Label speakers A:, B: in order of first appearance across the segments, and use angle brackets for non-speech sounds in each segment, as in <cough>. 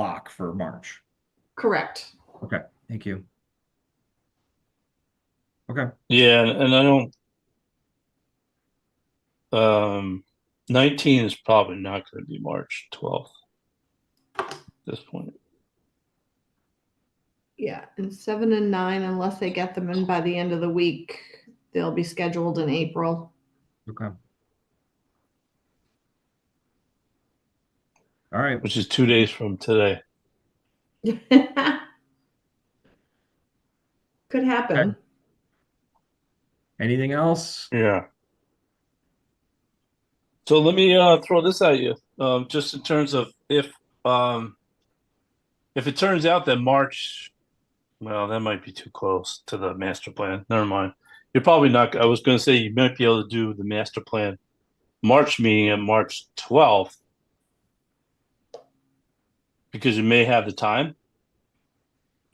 A: block for March.
B: Correct.
A: Thank you.
C: Yeah, and and I don't. Um, nineteen is probably not gonna be March twelfth. At this point,
B: Yeah, and seven and nine, unless they get them in by the end of the week, they'll be scheduled in April. <laughs>
A: Okay. All right,
C: which is two days from today.
B: Could happen.
A: anything else?
C: Yeah. So let me uh throw this at you, um, just in terms of if um. If it turns out that March, well, that might be too close to the master plan. Never mind. You're probably not, I was gonna say you might be able to do the master plan March meeting on March twelfth. Because you may have the time.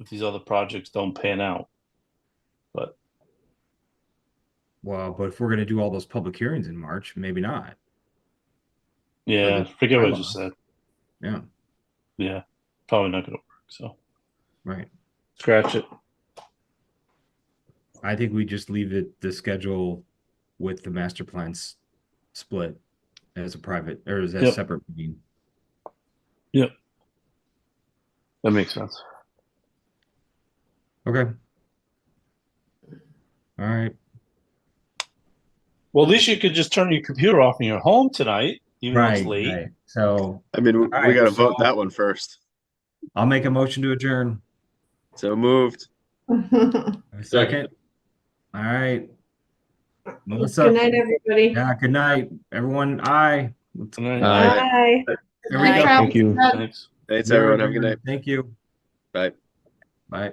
C: If these other projects don't pan out.
A: Well, but if we're gonna do all those public hearings in March, maybe not.
C: Yeah,
A: the
C: forget what I just
A: bylaws.
C: said.
A: Yeah,
C: Yeah, probably not gonna work, so.
A: right.
C: Scratch it.
A: I think we just leave it the schedule with the master plans split as a private or as a
C: Yep.
A: separate meeting.
C: That makes sense.
A: Okay. All right.
C: Well, at least you could just turn your computer off in your home tonight, even though
A: Right,
C: it's late.
A: right. So
D: I mean, we
A: right,
D: got to vote
A: so-
D: that one first.
A: I'll make a motion to adjourn.
D: So moved.
B: <laughs>
A: A Second.
D: Second.
A: All right.
B: Good
A: Melissa,
B: night, everybody.
A: yeah, good night, everyone. Aye.
C: Good night.
D: Aye.
B: Bye.
A: There we
B: Night,
A: go.
B: Travis.
C: Thanks.
D: Thanks, everyone. Have a good night.
A: Thank you.
D: Bye.
A: Bye.